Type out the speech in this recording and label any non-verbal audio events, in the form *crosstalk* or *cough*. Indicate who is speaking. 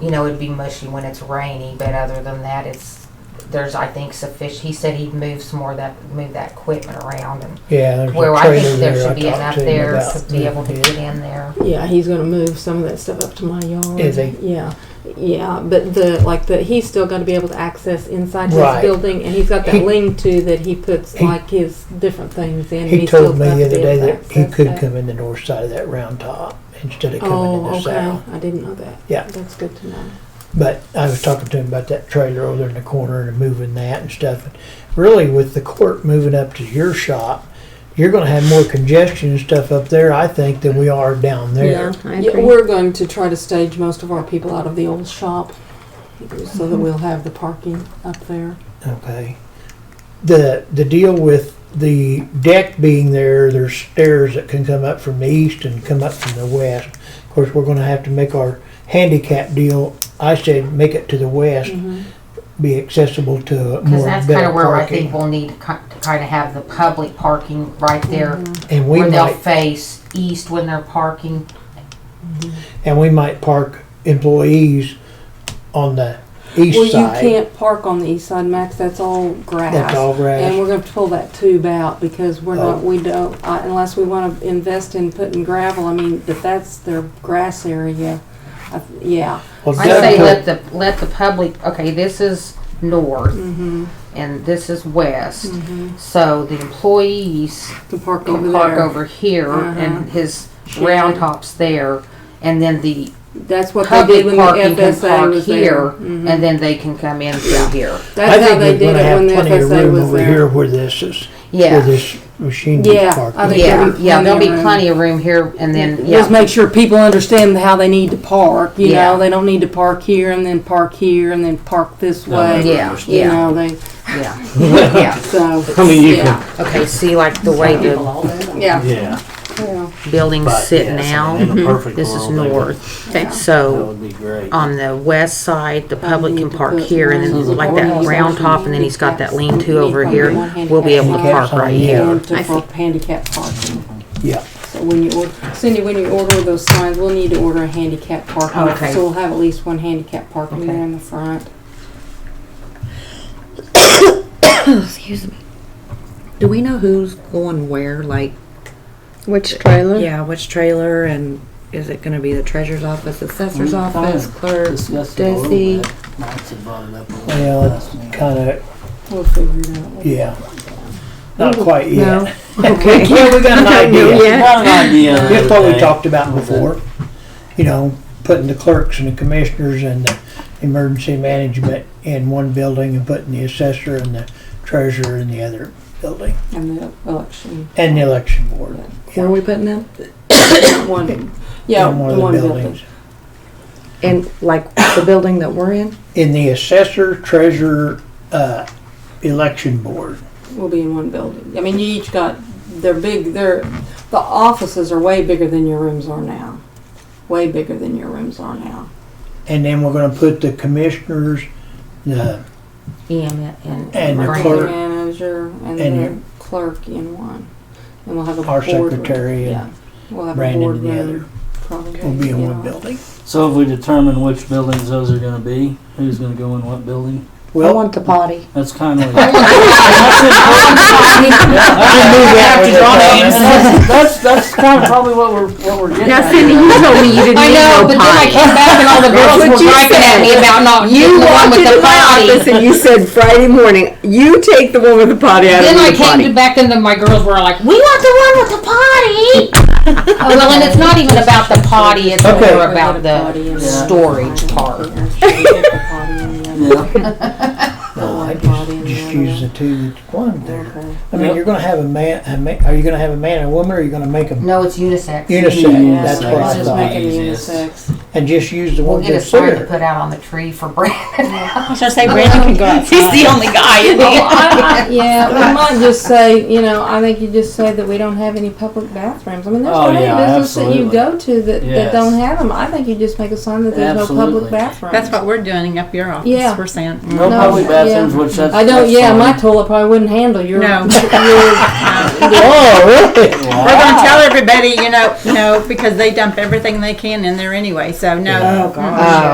Speaker 1: you know, it'd be mushy when it's rainy, but other than that, it's, there's, I think, sufficient, he said he'd move some more of that, move that equipment around and
Speaker 2: Yeah, there's a
Speaker 1: where
Speaker 2: trailer
Speaker 1: I think there
Speaker 2: there I
Speaker 1: should be
Speaker 2: talked
Speaker 1: enough
Speaker 2: to him
Speaker 1: there
Speaker 2: about.
Speaker 1: to be able to
Speaker 2: Yeah.
Speaker 1: get in there.
Speaker 3: Yeah, he's gonna move some of that stuff up to my yard.
Speaker 2: Is he?
Speaker 3: Yeah, yeah, but the, like, the, he's still gonna be able to access inside
Speaker 2: Right.
Speaker 3: his building, and he's got
Speaker 2: He-
Speaker 3: that lean to that he puts
Speaker 2: he-
Speaker 3: like his different things in. and
Speaker 2: He
Speaker 3: he's still
Speaker 2: told me
Speaker 3: gonna
Speaker 2: the other
Speaker 3: be
Speaker 2: day
Speaker 3: able to
Speaker 2: that he
Speaker 3: access
Speaker 2: could
Speaker 3: that.
Speaker 2: come in the north side of that round top instead of coming in
Speaker 3: Oh,
Speaker 2: the
Speaker 3: okay,
Speaker 2: south.
Speaker 3: I didn't know that.
Speaker 2: Yeah.
Speaker 3: That's good to know.
Speaker 2: But I was talking to him about that trailer over in the corner and moving that and stuff. And Really, with the court moving up to your shop, you're gonna have more congestion and stuff up there, I think, than we are down there.
Speaker 4: I
Speaker 3: Yeah, we're going to try to stage most of our people out of the old shop, so that we'll have the parking up there.
Speaker 2: Okay. The, the deal with the deck being there, there's stairs that can come up from the east and come up from the west. Of course, we're gonna have to make our handicap deal, I said, make it to the west, be accessible to
Speaker 1: Mm. Because
Speaker 2: more
Speaker 1: that's kind
Speaker 2: better
Speaker 1: of where I think
Speaker 2: parking.
Speaker 1: we'll need to kind of have the public parking right there,
Speaker 2: And we
Speaker 1: where they'll
Speaker 2: might,
Speaker 1: face east when they're parking.
Speaker 3: Mm-hmm.
Speaker 2: and we might park employees on the
Speaker 3: Well,
Speaker 2: east
Speaker 3: you
Speaker 2: side.
Speaker 3: can't park on the east side, Max, that's all grass.
Speaker 2: That's all
Speaker 3: And
Speaker 2: grass.
Speaker 3: we're gonna have to pull that tube out because we're
Speaker 2: Oh.
Speaker 3: not, we don't, uh, unless we wanna invest in putting gravel, I mean, but that's their grass area. I th- Yeah,
Speaker 2: Well,
Speaker 1: I say
Speaker 2: Doug
Speaker 1: let the, let the public, okay, this is north and this is west. So the employees
Speaker 3: to park over
Speaker 1: Mm-hmm. can park
Speaker 3: there.
Speaker 1: over here and his round tops there. And then the
Speaker 3: That's what they
Speaker 1: public
Speaker 3: did when the
Speaker 1: parking can
Speaker 3: FSA
Speaker 1: park
Speaker 3: was there.
Speaker 1: here Mm-hmm.
Speaker 3: Mhm.
Speaker 1: and then they can come in through here.
Speaker 2: I
Speaker 3: That's how
Speaker 2: think
Speaker 3: they
Speaker 2: we're
Speaker 3: did
Speaker 2: gonna
Speaker 3: it when
Speaker 2: have
Speaker 3: the
Speaker 2: plenty of
Speaker 3: FSA
Speaker 2: room
Speaker 3: was
Speaker 2: over here
Speaker 3: there.
Speaker 2: where this is, where
Speaker 1: Yeah,
Speaker 2: this machine
Speaker 3: Yeah,
Speaker 2: is
Speaker 3: I
Speaker 2: parked.
Speaker 3: think
Speaker 1: yeah,
Speaker 3: there'll be
Speaker 1: yeah, there'll be
Speaker 3: plenty of room.
Speaker 1: plenty of room here and then, yeah.
Speaker 3: Just make sure people understand how they need to park, you
Speaker 1: Yeah.
Speaker 3: know, they don't need to park here and then park here and then park this way.
Speaker 1: Yeah,
Speaker 3: You
Speaker 1: yeah,
Speaker 3: know, they,
Speaker 1: yeah, yeah.
Speaker 3: so,
Speaker 5: I mean, you
Speaker 3: yeah,
Speaker 1: Okay, see like the way the
Speaker 5: Yeah.
Speaker 3: yeah, yeah.
Speaker 1: buildings
Speaker 5: but
Speaker 1: sit
Speaker 5: yes,
Speaker 1: now,
Speaker 5: In a perfect
Speaker 1: this is
Speaker 5: world, they would-
Speaker 1: north. Uh,
Speaker 3: Okay.
Speaker 5: That
Speaker 1: So
Speaker 5: would be great.
Speaker 1: on the west side, the public
Speaker 3: need
Speaker 1: can
Speaker 3: to
Speaker 1: park
Speaker 3: put
Speaker 1: here and
Speaker 3: one-
Speaker 1: then like that
Speaker 3: one
Speaker 1: round
Speaker 3: handicap
Speaker 1: top and then he's got that lean-to over
Speaker 3: handicap
Speaker 1: here.
Speaker 3: sign,
Speaker 1: We'll be able to
Speaker 2: handicap
Speaker 1: park
Speaker 2: sign,
Speaker 1: right
Speaker 2: yeah.
Speaker 1: here.
Speaker 3: And to
Speaker 4: I
Speaker 3: for handicap parking.
Speaker 2: Yeah,
Speaker 3: So when you order, Cindy, when you order those signs, we'll need to order a handicap parking.
Speaker 1: Oh, Okay.
Speaker 3: So we'll have at least one handicap parking
Speaker 1: Okay.
Speaker 3: there in the front.
Speaker 4: Excuse me. Do we know who's going where? Like,
Speaker 6: Which trailer?
Speaker 4: yeah, which trailer, and is it going to be the treasurer's office, assessor's
Speaker 7: Mm,
Speaker 4: office,
Speaker 7: fine.
Speaker 4: clerk?
Speaker 7: discussed it a little
Speaker 4: Desi.
Speaker 7: bit. Max had brought it up a little bit
Speaker 2: well, it's
Speaker 7: last meeting.
Speaker 2: kinda,
Speaker 3: We'll figure it out.
Speaker 2: yeah. Not quite
Speaker 4: No.
Speaker 2: yet. *laughs*
Speaker 4: Okay.
Speaker 2: Well, we got an idea.
Speaker 4: Yeah.
Speaker 7: Got an idea the
Speaker 2: That's
Speaker 7: other
Speaker 2: what we
Speaker 7: day.
Speaker 2: talked about before, you know, putting the clerks and the commissioners and the emergency management in one building and putting the assessor and the treasurer in the other building,
Speaker 3: And the
Speaker 2: *coughs*
Speaker 3: election.
Speaker 2: and the election board.
Speaker 4: Where are we putting them?
Speaker 3: One, yeah,
Speaker 2: in
Speaker 3: one building.
Speaker 4: In like the building that we're in?
Speaker 2: In the assessor, treasurer, uh, election board.
Speaker 3: We'll be in one building. I mean, you each got, they're big, they're, the offices are way bigger than your rooms are now. Way bigger than your rooms are now.
Speaker 2: And then we're gonna put the commissioners, the
Speaker 1: EM and.
Speaker 2: And the
Speaker 1: Grant.
Speaker 2: clerk.
Speaker 3: Branch manager and
Speaker 2: And
Speaker 3: the
Speaker 2: your-
Speaker 3: clerk in one. And we'll have a
Speaker 2: Our
Speaker 3: boardroom.
Speaker 2: secretary and
Speaker 3: Yeah. We'll have a
Speaker 2: Brandon in
Speaker 3: boardroom.
Speaker 2: the other,
Speaker 3: Probably.
Speaker 2: will be in
Speaker 3: yeah.
Speaker 2: one
Speaker 3: *laughs*
Speaker 2: building.
Speaker 7: So if we determine which buildings those are gonna be, who's gonna go in what building,
Speaker 2: Well,
Speaker 6: the potty.
Speaker 7: that's kind of.
Speaker 2: *laughs*
Speaker 7: That's, that's kind of probably what we're, what we're getting at. here.
Speaker 6: you told me you didn't
Speaker 1: I know, but then I came back and all the girls
Speaker 6: That's *laughs* what
Speaker 1: were
Speaker 6: you
Speaker 1: griping
Speaker 6: said.
Speaker 1: at me about not
Speaker 6: You
Speaker 1: getting the one
Speaker 6: walked
Speaker 1: with
Speaker 6: into
Speaker 1: the
Speaker 6: my
Speaker 1: potty.
Speaker 6: office and you said Friday morning, you take the one with the potty out
Speaker 1: Then
Speaker 6: of
Speaker 1: I
Speaker 6: the
Speaker 1: came
Speaker 6: potty.
Speaker 1: to back and then my girls were like, "We want the one with the
Speaker 6: *laughs*
Speaker 1: potty." oh, well, and it's not even about the potty; it's
Speaker 2: Okay.
Speaker 1: more about the
Speaker 3: Potty in
Speaker 7: Yeah.
Speaker 1: storage part.
Speaker 7: Yeah,
Speaker 2: No, I
Speaker 3: Body
Speaker 2: just,
Speaker 3: and
Speaker 2: just
Speaker 3: the
Speaker 2: use
Speaker 3: other.
Speaker 2: the two that's one there.
Speaker 3: Okay.
Speaker 2: I mean,
Speaker 7: Yep.
Speaker 2: you're gonna have a man, a ma- are you gonna have a man and a woman, or are you gonna make them
Speaker 1: No, it's unisex.
Speaker 2: unisex? That's what
Speaker 7: Unisex.
Speaker 2: I
Speaker 3: Just
Speaker 2: thought.
Speaker 3: make it
Speaker 2: *laughs*
Speaker 7: Easiest.
Speaker 3: unisex.
Speaker 2: And just use the
Speaker 1: We'll
Speaker 2: ones
Speaker 1: get a
Speaker 2: that's
Speaker 1: sign to
Speaker 2: there.
Speaker 1: put out on the tree for *laughs* Brandon.
Speaker 6: So say Brandon can go He's the only guy in
Speaker 1: *laughs* Oh.
Speaker 3: Yeah, we might just say, you know, I think you just say that we don't have any public bathrooms. I mean, there's
Speaker 7: Oh,
Speaker 3: plenty
Speaker 7: yeah,
Speaker 3: of business that you go
Speaker 7: absolutely.
Speaker 3: to that, that
Speaker 7: Yes.
Speaker 3: don't have them. I think you just make a sign that there's no
Speaker 7: Absolutely.
Speaker 3: public bathrooms.
Speaker 8: That's what we're doing up your office.
Speaker 3: Yeah.
Speaker 8: We're saying, mm,
Speaker 7: no
Speaker 3: No,
Speaker 7: public
Speaker 3: yeah.
Speaker 7: bathrooms, which that's.
Speaker 3: I don't.
Speaker 7: that's
Speaker 3: Yeah,
Speaker 7: fine.
Speaker 3: my toilet probably wouldn't handle your.
Speaker 8: no.
Speaker 2: Oh, really?
Speaker 8: *laughs* We're *laughs* going to tell everybody, you know, no, because they dump everything they can in there anyway. So, no.
Speaker 4: Oh, God.
Speaker 2: Uh,